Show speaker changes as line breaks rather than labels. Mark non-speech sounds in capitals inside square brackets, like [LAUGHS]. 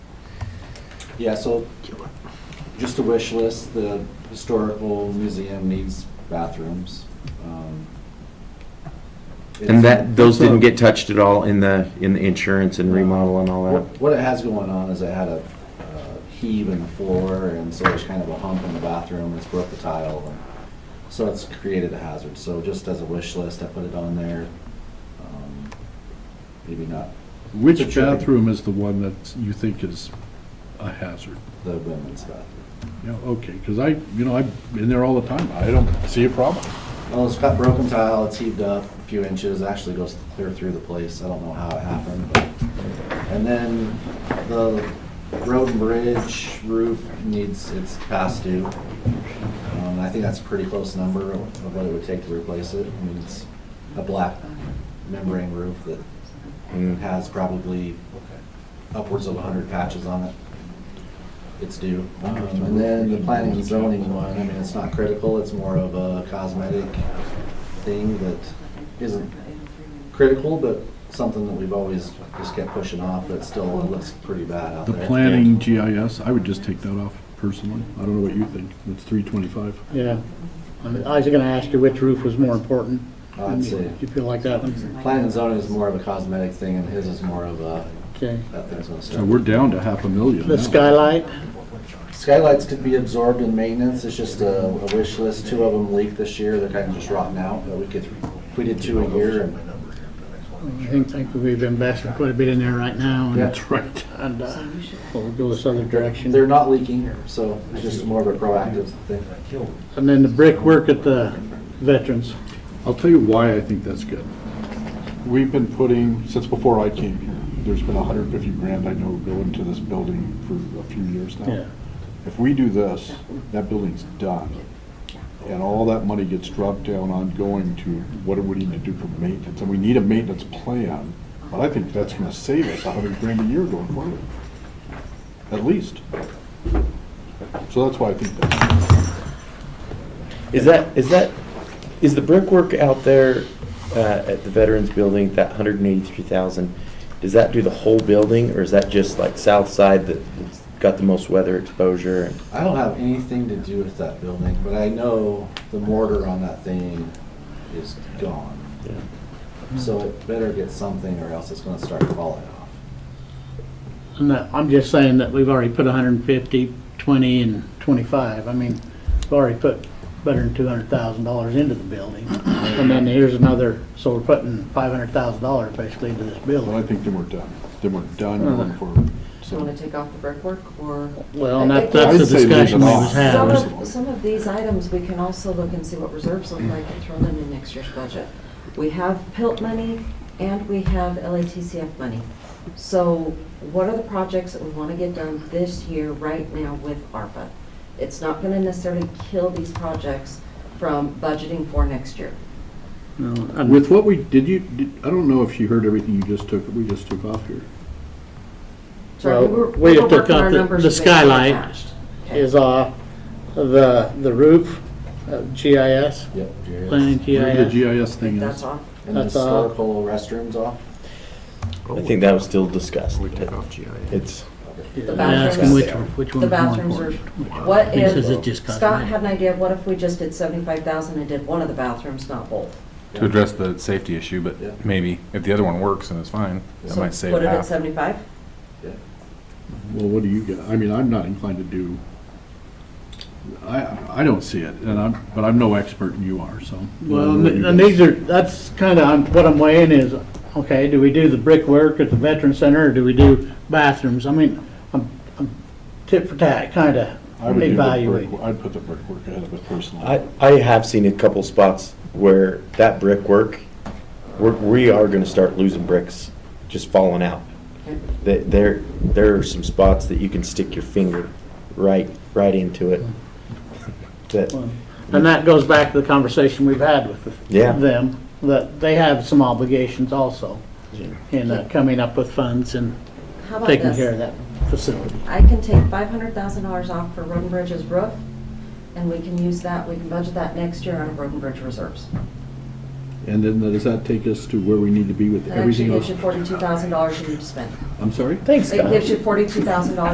Yeah, so just a wish list, the historical museum needs bathrooms. um,
And that, those
it's a-
didn't get touched at all in the, in the insurance and remodel and all that?
What what it has going on is it had a uh, heave in the floor, and so there's kind of a hump in the bathroom, and it's broke the tile. and So it's created a hazard, so just as a wish list, I put it on there. Um, Maybe not
Which
It's a tricky-
bathroom is the one that you think is a hazard?
the women's bathroom.
You know, okay, because I, you know, I'm in there all the time, I don't see a problem.
Well, it's got broken tile, it's heaved up a few inches, actually goes clear through the place, I don't know how it happened, but. And then the road and bridge roof needs, it's past due. Um, I think that's a pretty close number of what it would take to replace it, I mean, it's a black membrane roof that
Mm.
has probably upwards of hundred patches on it. It's due. Um, And then the planning and zoning one, I mean, it's not critical, it's more of a cosmetic thing that isn't critical, but something that we've always just kept pushing off, but still looks pretty bad out
The
there.
planning GIS, I would just take that off personally, I don't know what you think, it's three twenty-five.
Yeah. I was gonna ask you which roof was more important.
I'd say
Do you feel like that one?
Mm-hmm.
planning and zoning is more of a cosmetic thing, and his is more of a,
Okay.
Mm-hmm.
that thing's gonna start.
So we're down to half a million
The
now.
skylight,
Skylights could be absorbed in maintenance, it's just a a wish list, two of them leaked this year, they're kind of just rotting out, but we could, if we did two a year, and
I think, think we've invested quite a bit in there right now. and-
Yeah.
That's [LAUGHS] right.
And, uh, we'll go this other direction.
They're not leaking, so it's just more of a proactive thing.
And then the brickwork at the veterans.
I'll tell you why I think that's good. We've been putting, since before I came here, there's been hundred and fifty grand, I know, going to this building for a few years now.
Yeah.
If we do this, that building's done. And all that money gets dropped down ongoing to what do we need to do for maintenance? And we need a maintenance plan, but I think that's gonna save us a hundred grand a year going forward, at least. So that's why I think that's,
Is that, is that, is the brickwork out there uh, at the Veterans Building, that 183,000, does that do the whole building, or is that just like south side that's got the most weather exposure?
I don't have anything to do with that building, but I know the mortar on that thing is gone.
Yeah.
So it better get something or else it's gonna start falling off.
And that, I'm just saying that we've already put 150, 20, and 25. I mean, we've already put better than $200,000 into the building. And then here's another, so we're putting $500,000 basically into this
well, I
building.
think then we're done. Then we're done going forward.
Do
So-
you want to take off the brickwork, or?
Well, and
I- I
that- that's the
I'd say leave it
discussion we
off.
was
Some
having.
of, some of these items, we can also look and see what reserves look like and throw them in next year's budget. We have PILT money and we have LATCF money. So what are the projects that we want to get done this year, right now with ARPA? It's not going to necessarily kill these projects from budgeting for next year.
No, and-
With what we, did you, did- I don't know if she heard everything you just took, we just took off here.
Sorry, we
Well,
were,
we
we were
took
working
out
our
the-
numbers.
the
based on
skylight
attached. Okay.
is off the, the roof, uh, GIS,
Yep. Jerry.
planning
Where The
GIS.
GIS thing is.
That's off.
And the
That's, uh,
historical restroom's off.
I think that was still discussed. It's,
Yeah,
bathrooms.
Asking which, which
The
one's more
bathrooms are,
important.
what
He says it
if,
just
Scott
cosmetic.
had an idea, what if we just did seventy-five thousand and did one of the bathrooms, not both?
to address the safety issue, but
Yeah.
maybe if the other one works and it's fine, that
So
might save
Put it at
half.
seventy-five?
Yeah.
Well, what do you get? I mean, I'm not inclined to do, I, I don't see it, and I'm, but I'm no expert and you are, so.
Well, and and these are, that's kind of, what I'm weighing is, okay, do we do the brickwork at the Veteran Center, or do we do bathrooms? I mean, I'm, I'm tit for tat, kind
I would
of
do the brick-
evaluating.
I'd put the brickwork ahead of it personally.
I, I have seen a couple spots where that brickwork, we're- we are going to start losing bricks just falling out. Th- There, there are some spots that you can stick your finger right, right into it. That,
And that goes back to the conversation we've had with the-
Yeah.
them, that they have some obligations also in uh, coming up with funds and
How about
taking care of
this?
that facility.
I can take five hundred thousand dollars off for Roden Bridge's roof, and we can use that, we can budget that next year out of Roden Bridge reserves.
And then does that take us to where we need to be with
That actually
everything else?
gives you forty-two thousand dollars you need to spend.
I'm sorry?
thanks,
It
Scott.
gives you forty-two thousand dollars